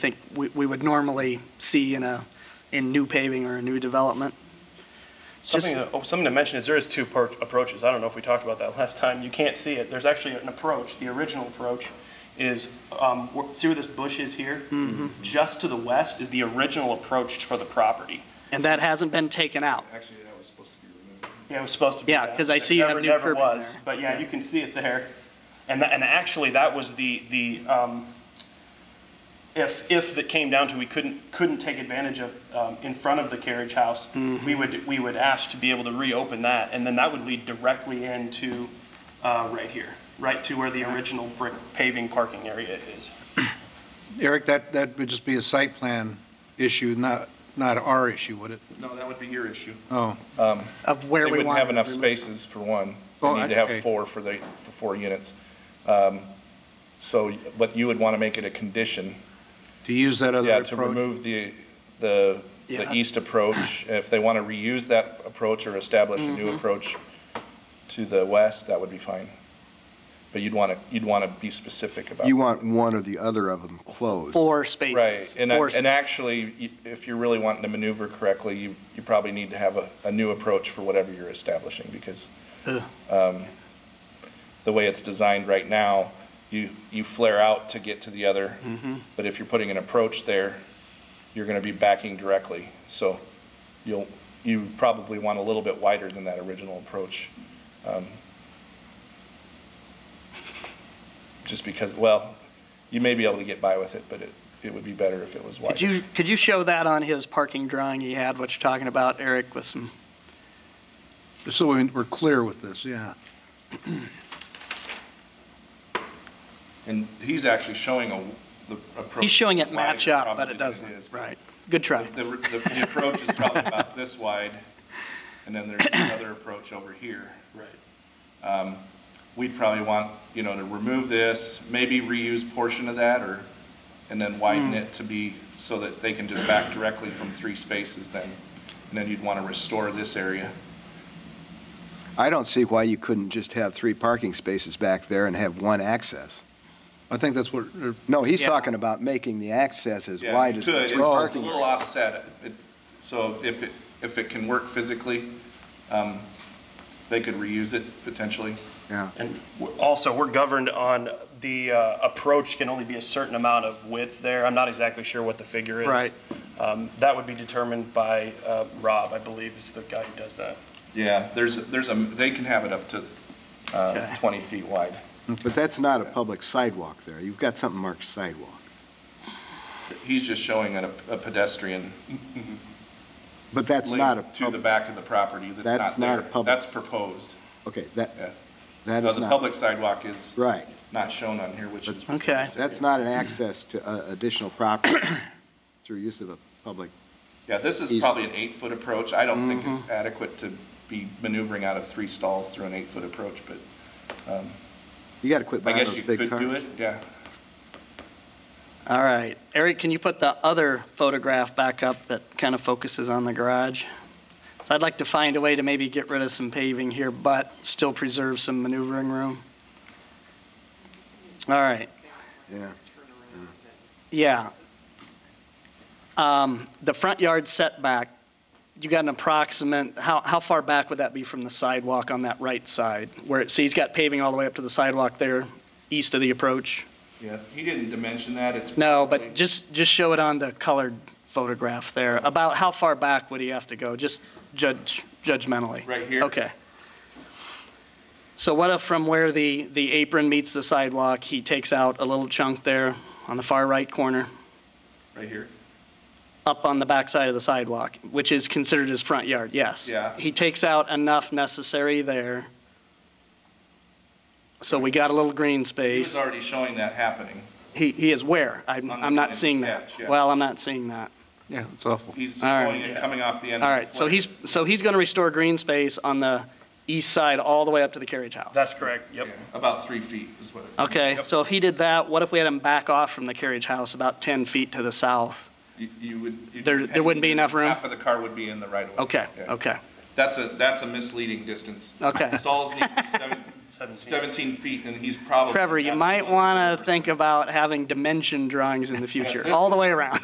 think we, we would normally see in a, in new paving or a new development. Something, Just- to- oh, something to mention is there is two per- approaches. I don't know if we talked about that last time. You can't see it. There's actually an approach. The original approach is, um, wh- see where this bush is here? Just to the west is the original approach for the property. And that hasn't been taken out. Actually, that was supposed to be removed. Yeah, it was supposed to be. Yeah, that. 'cause I It see you have never- new never curb in was, there. But yeah, you can see it there. And, tha- and actually, that was the, the, um, if, if that came down to we couldn't, couldn't take advantage of, um, in front of the carriage house, Mm-hmm. we would, we would ask to be able to reopen that, and then that would lead directly into, uh, right here, right to where the original brick paving parking area is. Eric, that, that would just be a site plan issue, not, not our issue, would it? No, that would be your issue. Oh, Of where we They wouldn't want. have it enough to be. spaces for one. Oh, They need to okay. have four for the, for four units. Um, So, but you would want to make it a condition, to use that other yeah, to approach? remove the, the, Yeah. the east approach. If they want to reuse that approach or establish a new approach to the west, that would be fine. But you'd want to, you'd want to be specific about. You that. want one or the other of them closed. Four spaces. Right, and, I- Four and actually, y- if you're really wanting to maneuver correctly, you, you probably need to have a, a new approach for whatever you're establishing, because Ugh. um, the way it's designed right now, you, you flare out to get to the other, Mm-hmm. but if you're putting an approach there, you're gonna be backing directly, so you'll, you probably want a little bit wider than that original approach. Um, Just because, well, you may be able to get by with it, but it, it would be better if it was wider. Could you, could you show that on his parking drawing he had, what you're talking about, Eric, with some, Just So we- we're clear with this, yeah. And he's actually showing a, the approach. he's showing it match wider up, but probably it than doesn't. is. Right. Good try. The, the the approach is probably about this wide, and then there's another approach over here. Um, Right. We'd probably want, you know, to remove this, maybe reuse portion of that, or, and then Hmm. widen it to be, so that they can just back directly from three spaces then. And then you'd want to restore this area. I don't see why you couldn't just have three parking spaces back there and have one access. I think that's what, uh, No, he's Yeah. talking about making the access as Yeah, wide you as the could. three It's- parking. It's a little offset, It- so if it, if it can work physically, um, they could reuse it potentially. Yeah. And we're- also, we're governed on the uh, approach can only be a certain amount of width there. I'm not exactly sure what the figure is. Right. Um, That would be determined by uh, Rob, I believe, is the guy who does that. Yeah, there's, there's a, they can have it up to Okay. uh, 20 feet wide. But that's not a public sidewalk there. You've got something marked sidewalk. He's just showing a a pedestrian But that's not a, link to the pub- back of the property that's not there. That's not a public- That's proposed, okay, yeah. that, that No, is the not, public sidewalk is right. not shown on here, which is. Okay. That's not an access to uh, additional property through use of a public, Yeah, this is Easy. Mm-hmm. probably an eight-foot approach. I don't think it's adequate to be maneuvering out of three stalls through an eight-foot approach, but you got to quit I buying guess those you big could cars. do it, yeah. All right. Eric, can you put the other photograph back up that kind of focuses on the garage? So I'd like to find a way to maybe get rid of some paving here, but still preserve some maneuvering room. All right. Yeah. Yeah. Um, The front yard setback, you got an approximate, how, how far back would that be from the sidewalk on that right side? Where, it see, he's got paving all the way up to the sidewalk there, east of the approach? Yeah, he didn't dimension that, it's. No, but probably- just, just show it on the colored photograph there. About how far back would he have to go, just judge, judgmentally? Right here? Okay. So what if from where the, the apron meets the sidewalk, he takes out a little chunk there on the far right corner? Right here? up on the backside of the sidewalk, which is considered his front yard, yes. Yeah. He takes out enough necessary there. So we got a little green He was space. already showing that happening. He, he is where? I'm, On the I'm not plan seeing that. sketch, yeah. Well, I'm not seeing that. yeah, it's awful. He's just All right. going and coming off the end. All of the right, so flare. he's, so he's going to restore green space on the east side all the way up to the carriage house. That's correct, yep. Yeah, About three feet is what. it- Okay, Yep. so if he did that, what if we had him back off from the carriage house about 10 feet to the south? You- You would. you'd- There- there wouldn't be enough room? Half of the car would be in the right of way. Okay, Yeah. okay. That's a, that's a misleading distance. Okay. Stalls need to be seven, 17. 17 feet, and he's probably. Trevor, you might want to think about having dimension drawings in the future, all the way around.